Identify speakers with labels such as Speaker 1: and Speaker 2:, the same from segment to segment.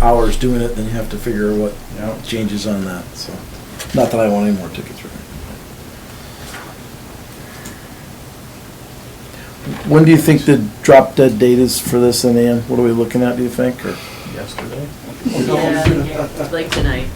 Speaker 1: hours doing it, then you have to figure what
Speaker 2: Yeah.
Speaker 1: changes on that, so. Not that I want any more tickets written. When do you think the drop dead date is for this in the end? What are we looking at, do you think, or?
Speaker 2: yesterday.
Speaker 3: Yeah, Like tonight.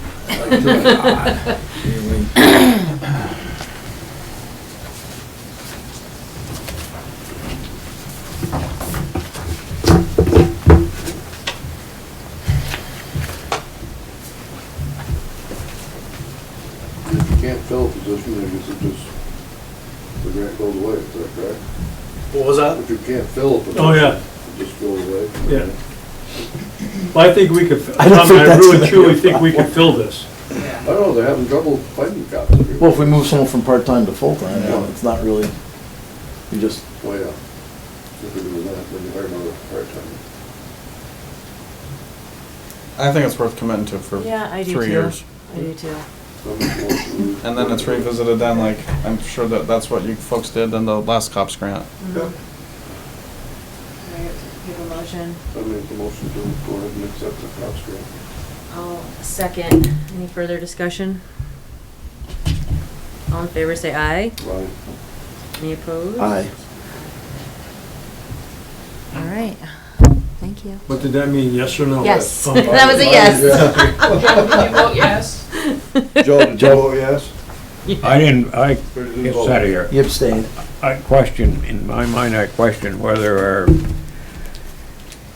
Speaker 4: If you can't fill a position, I guess it just, the grant goes away, is that correct?
Speaker 5: What was that?
Speaker 4: If you can't fill a position.
Speaker 5: Oh, yeah.
Speaker 4: It just goes away.
Speaker 5: Yeah. Well, I think we could,
Speaker 1: I don't
Speaker 5: Tom,
Speaker 1: think
Speaker 5: I
Speaker 1: that's
Speaker 5: really
Speaker 1: gonna
Speaker 5: truly
Speaker 1: be a
Speaker 5: think we could fill this.
Speaker 4: I don't know, they're having trouble finding cops here.
Speaker 1: Well, if we move someone from part-time to full-time, you know,
Speaker 4: Yeah.
Speaker 1: it's not really, you just,
Speaker 4: Well, Oh, yeah. If it was that, then you hire another part-time.
Speaker 2: I think it's worth committing to for
Speaker 3: Yeah, I do
Speaker 2: three
Speaker 3: too.
Speaker 2: years.
Speaker 3: I do too.
Speaker 4: How much more can we-
Speaker 2: And then it's revisited then, like, I'm sure that that's what you folks did in the last cops grant.
Speaker 3: Mhm. Can I get- Give a motion.
Speaker 4: I make the motion to go ahead and accept the cops grant.
Speaker 3: I'll second. Any further discussion? All in favor, say aye.
Speaker 4: Right.
Speaker 3: Any opposed?
Speaker 1: aye.
Speaker 3: All right. Thank you.
Speaker 5: What did that mean, yes or no?
Speaker 3: Yes.
Speaker 5: Somebody-
Speaker 3: That was a yes.
Speaker 6: Did you vote yes?
Speaker 4: Joe, did you
Speaker 1: Oh,
Speaker 4: vote yes?
Speaker 7: I didn't, I,
Speaker 4: Or did you
Speaker 7: it's
Speaker 4: vote?
Speaker 7: out of here.
Speaker 1: You abstained.
Speaker 7: I question, in my mind, I question whether our,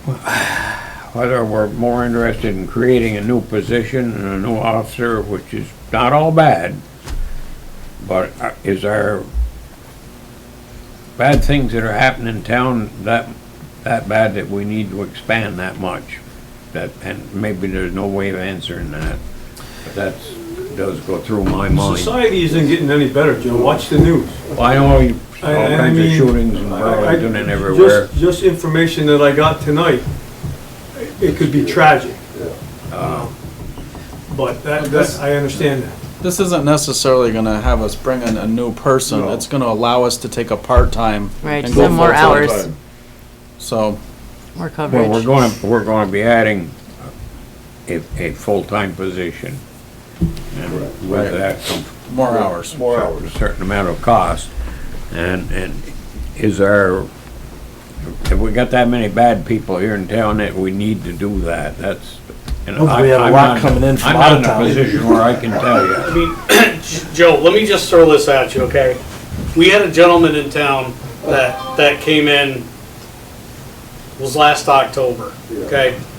Speaker 7: whether we're more interested in creating a new position and a new officer, which is not all bad, but uh, is our bad things that are happening in town that, that bad that we need to expand that much? That, and maybe there's no way of answering that, but that's, does go through my mind.
Speaker 5: Society isn't getting any better, Joe, watch the news.
Speaker 7: Well, I know you-
Speaker 5: I-
Speaker 7: all
Speaker 5: I
Speaker 7: kinds of
Speaker 5: mean,
Speaker 7: shootings in
Speaker 5: I- I-
Speaker 7: Burlington
Speaker 5: just-
Speaker 7: and everywhere.
Speaker 5: Just information that I got tonight, it could be tragic, Um,
Speaker 4: Yeah.
Speaker 5: but that, that, I understand that.
Speaker 2: This isn't necessarily gonna have us bring in a new person.
Speaker 4: No.
Speaker 2: It's gonna allow us to take a part-time.
Speaker 3: Right,
Speaker 2: and
Speaker 3: just
Speaker 2: go
Speaker 3: have more
Speaker 2: full-time.
Speaker 3: hours.
Speaker 4: Full-time.
Speaker 2: So,
Speaker 3: More
Speaker 7: Well, we're
Speaker 3: coverage.
Speaker 7: going, we're going to be adding a, a full-time position. And with that comes
Speaker 2: more hours.
Speaker 4: More hours.
Speaker 7: a certain amount of cost. And, and is our, have we got that many bad people here in town that we need to do that? That's. and
Speaker 1: Well, we
Speaker 7: I-
Speaker 1: have a
Speaker 7: I'm
Speaker 1: lot
Speaker 7: not-
Speaker 1: coming in from out
Speaker 7: I'm
Speaker 1: of
Speaker 7: not
Speaker 1: town.
Speaker 7: in a position where I can tell you.
Speaker 8: I mean, Joe, let me just throw this at you, okay? We had a gentleman in town that, that came in, was last October, okay?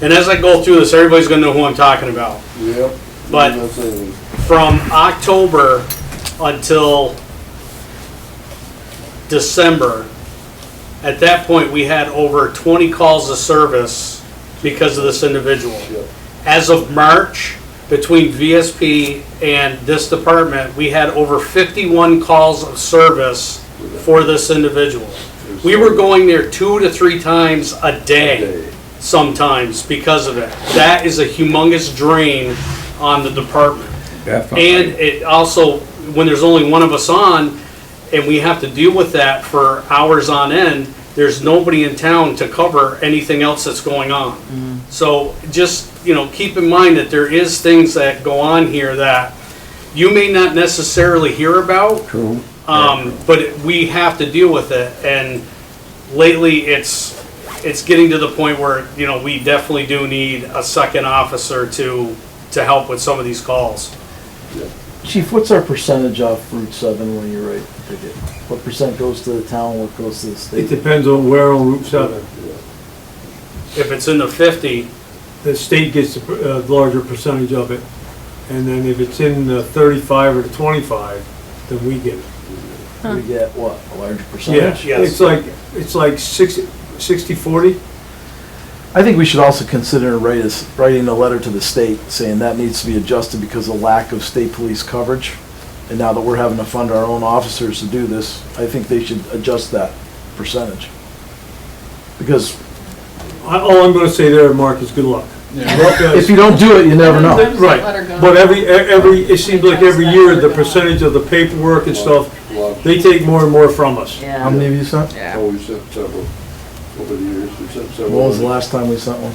Speaker 8: And as I go through this, everybody's gonna know who I'm talking about.
Speaker 4: Yep.
Speaker 8: But-
Speaker 4: That's it.
Speaker 8: From October until December, at that point, we had over 20 calls of service because of this individual.
Speaker 4: Yep.
Speaker 8: As of March, between VSP and this department, we had over 51 calls of service for this individual. We were going there two to three times a day sometimes because of it. That is a humongous drain on the department. And
Speaker 7: Definitely.
Speaker 8: it also, when there's only one of us on, and we have to deal with that for hours on end, there's nobody in town to cover anything else that's going
Speaker 7: Mm-hmm.
Speaker 8: on. So just, you know, keep in mind that there is things that go on here that you may not necessarily hear about,
Speaker 7: True.
Speaker 8: um, but we have to deal with it, and lately, it's, it's getting to the point where, you know, we definitely do need a second officer to, to help with some of these calls.
Speaker 1: Chief, what's our percentage off Route seven when you write the ticket? What percent goes to the town, what goes to the
Speaker 5: It
Speaker 1: state?
Speaker 5: depends on where on Route 7.
Speaker 8: If it's in the fifty,
Speaker 5: The state gets a per- a larger percentage of it, and then if it's in the 35 or the 25, then we get it.
Speaker 1: We get what, a larger
Speaker 5: Yeah,
Speaker 1: percentage?
Speaker 8: Yes.
Speaker 5: it's like, it's like 60, 60, 40.
Speaker 1: I think we should also consider write us- writing a letter to the state saying that needs to be adjusted because of lack of state police coverage. And now that we're having to fund our own officers to do this, I think they should adjust that percentage. Because
Speaker 5: I- All I'm gonna say there, Mark, is good luck. uh,
Speaker 1: if you don't do it, you never know.
Speaker 5: Right, but every, e- every, it seems like every year, the percentage of the paperwork and stuff,
Speaker 4: Lots-
Speaker 5: they take more and more from us.
Speaker 1: How
Speaker 3: Yeah.
Speaker 1: many have you sent?
Speaker 4: Oh, we sent several over the years, we sent several.
Speaker 1: When was the last time we sent one?